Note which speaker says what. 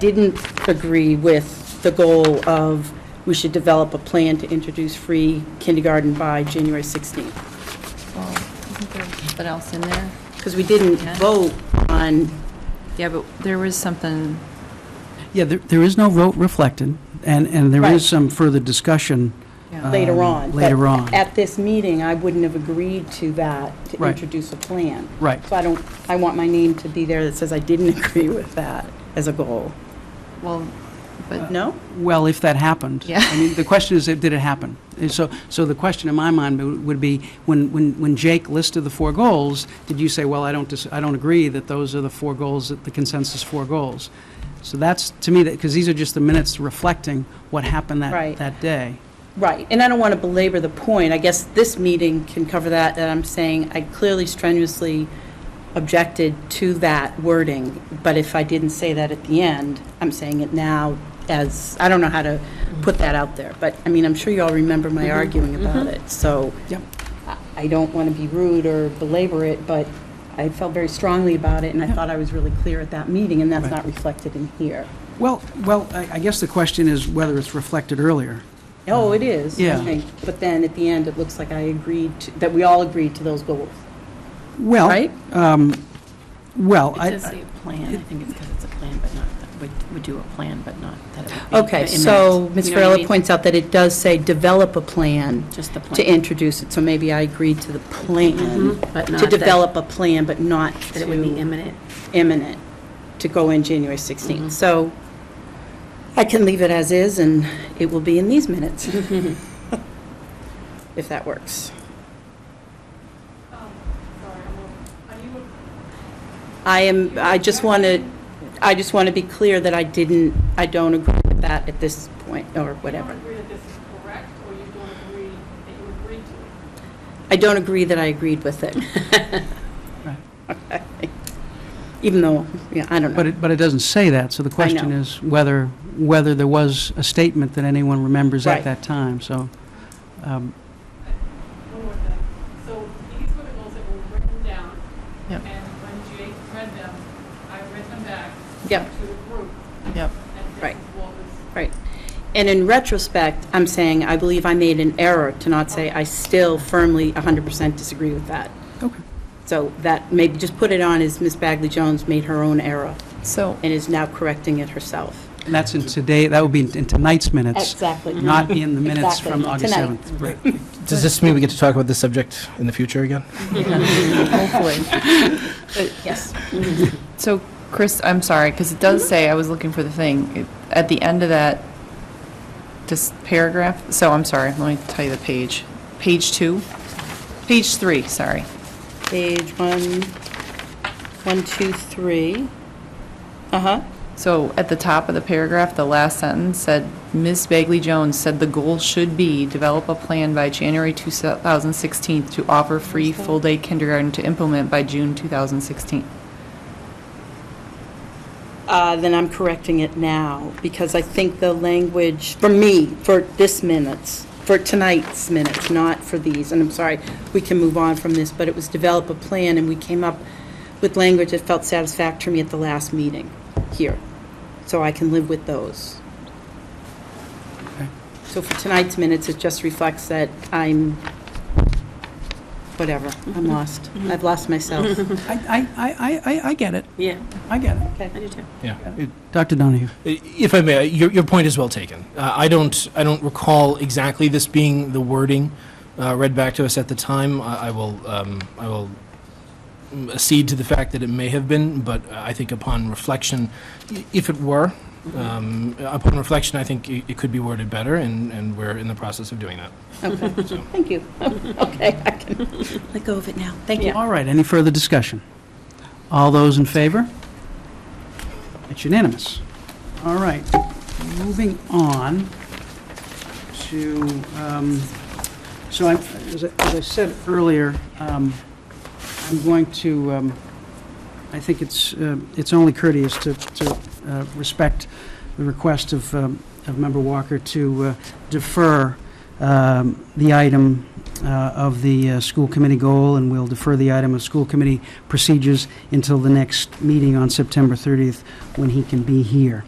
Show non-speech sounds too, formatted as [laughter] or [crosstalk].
Speaker 1: didn't agree with the goal of we should develop a plan to introduce free kindergarten by January 16th,
Speaker 2: What else in there?
Speaker 1: because we didn't
Speaker 2: Yeah.
Speaker 1: vote on,
Speaker 2: Yeah, but there was something,
Speaker 3: Yeah, there, there is no vote reflected, and, and there
Speaker 1: Right.
Speaker 3: is some further discussion.
Speaker 2: Yeah.
Speaker 1: later
Speaker 3: um,
Speaker 1: on. but
Speaker 3: Later on,
Speaker 1: At this meeting, I wouldn't have agreed to that, to
Speaker 3: Right.
Speaker 1: introduce a plan.
Speaker 3: right.
Speaker 1: So I don't, I want my name to be there that says I didn't [laughs] agree with that as a goal.
Speaker 2: well, but,
Speaker 1: No?
Speaker 3: Well, if that happened.
Speaker 2: Yeah.
Speaker 3: I mean, the question is, did it happen? And so, so the question in my mind would- would be, when, when, when Jake listed the four goals, did you say, well, I don't, dis- I don't agree that those are the four goals, that the consensus four goals? So that's, to me, that, because these are just the minutes reflecting what happened
Speaker 1: Right.
Speaker 3: that, that day.
Speaker 1: Right, and I don't want to belabor the point. I guess this meeting can cover that, that I'm saying I clearly strenuously objected to that wording, but if I didn't say that at the end, I'm saying it now as, I don't know how to put that out there, but, I mean, I'm sure you all remember my arguing about it, so.
Speaker 3: Mm-hmm. Yep.
Speaker 1: I- I don't want to be rude or belabor it, but I felt very strongly about it, and I thought I was really clear at that meeting, and that's
Speaker 3: Right.
Speaker 1: not reflected in here.
Speaker 3: Well, well, I I guess the question is whether it's reflected earlier.
Speaker 1: Oh, it is, I
Speaker 3: Yeah.
Speaker 1: think. But then at the end, it looks like I agreed, to- that we all agreed to those goals,
Speaker 3: Well.
Speaker 1: right?
Speaker 3: Um,
Speaker 1: Oh,
Speaker 3: Well, I.
Speaker 4: It does say plan, I think it's because it's a plan, but not, that we- we do a plan, but not that it would be.
Speaker 1: Okay,
Speaker 4: in
Speaker 1: so
Speaker 4: minutes.
Speaker 1: Ms.
Speaker 4: You know what I
Speaker 1: Farrella
Speaker 4: mean?
Speaker 1: points out that it does say develop a plan
Speaker 4: Just the
Speaker 1: to
Speaker 4: plan,
Speaker 1: introduce it, so maybe I agreed to the plan,
Speaker 4: Mhm, but not
Speaker 1: to
Speaker 4: that-
Speaker 1: develop a plan, but not
Speaker 4: that it would be
Speaker 1: to
Speaker 4: imminent.
Speaker 1: imminent, to go in January
Speaker 4: Mm-hmm.
Speaker 1: 16th. So I can leave it as is, and it will be in these minutes,
Speaker 4: Mm-hmm.
Speaker 1: [laughs] if that works.
Speaker 5: Um, sorry, I'm a- are you a-
Speaker 1: I am, I just want to, I just want to be clear that I didn't, I don't agree with that at this point, or
Speaker 5: You
Speaker 1: whatever.
Speaker 5: don't agree that this is correct, or you don't agree that you agree to it?
Speaker 1: I don't agree that I agreed with it.
Speaker 3: [laughs] Right.
Speaker 1: Okay. [laughs] Even though, yeah, I don't
Speaker 3: But
Speaker 1: know.
Speaker 3: it, but it doesn't say that, so the question
Speaker 1: know.
Speaker 3: is whether, whether there was a statement that anyone remembers
Speaker 1: Right.
Speaker 3: at that time, so. um,
Speaker 5: One more thing. So these were the goals that were written down.
Speaker 2: Yep.
Speaker 5: And when Jake read them, I read them back
Speaker 1: Yep.
Speaker 5: to the group,
Speaker 2: yep.
Speaker 5: and this
Speaker 1: Right.
Speaker 5: is what was
Speaker 1: Right. And in retrospect, I'm saying, I believe I made an error to not say, I still firmly 100% disagree with that.
Speaker 3: Okay.
Speaker 1: So that, maybe just put it on as Ms. Bagley Jones made her own error
Speaker 2: So,
Speaker 1: and is now correcting it herself.
Speaker 3: And that's in today, that would be in tonight's minutes,
Speaker 1: Exactly.
Speaker 3: not in the minutes
Speaker 1: Exactly.
Speaker 3: from August
Speaker 1: Tonight.
Speaker 3: 7th.
Speaker 6: Right. Does this mean we get to talk about this subject in the future again?
Speaker 1: Hopefully. Yes.
Speaker 2: [laughs] so Chris, I'm sorry, because it does say, I was looking for the thing, It- at the end of that, this paragraph, so I'm sorry, let me tell you the page. Page two, page three, sorry.
Speaker 1: Page one, one, two, three. Uh-huh.
Speaker 2: So at the top of the paragraph, the last sentence said, Ms. Bagley Jones said the goal should be develop a plan by January 2016 to offer free full-day kindergarten to implement by June 2016.
Speaker 1: Uh, Then I'm correcting it now, because I think the language, for me, for this minutes, for tonight's minutes, not for these, and I'm sorry, we can move on from this, but it was develop a plan, and we came up with language that felt satisfactory to me at the last meeting here. So I can live with those. So for tonight's minutes, it just reflects that I'm, whatever, I'm lost. I've lost myself.
Speaker 3: I, I, I- I, I get it,
Speaker 4: Yeah,
Speaker 3: I get it.
Speaker 4: I do too.
Speaker 6: Yeah. It-
Speaker 3: Dr. Donahue?
Speaker 6: If I may, your, your point is well taken. Uh, I don't, I don't recall exactly this being the wording uh, read back to us at the time. I I will, um, I will mm, accede to the fact that it may have been, but uh, I think upon reflection, i- if it were, um, upon reflection, I think it it could be worded better, and, and we're in the process of doing that.
Speaker 1: Okay,
Speaker 6: So-
Speaker 1: thank you. [laughs] Okay, I can let go of it now. Thank you.
Speaker 3: All right, any further discussion? All those in favor? It's unanimous. All right, moving on to, um, so I, as I as I said earlier, um, I'm going to, um, I think it's, uh, it's only courteous to, to uh, respect the request of, um, of Member Walker to uh, defer um, the item uh, of the uh, school committee goal, and we'll defer the item of school committee procedures until the next meeting on September 30th, when he can be here.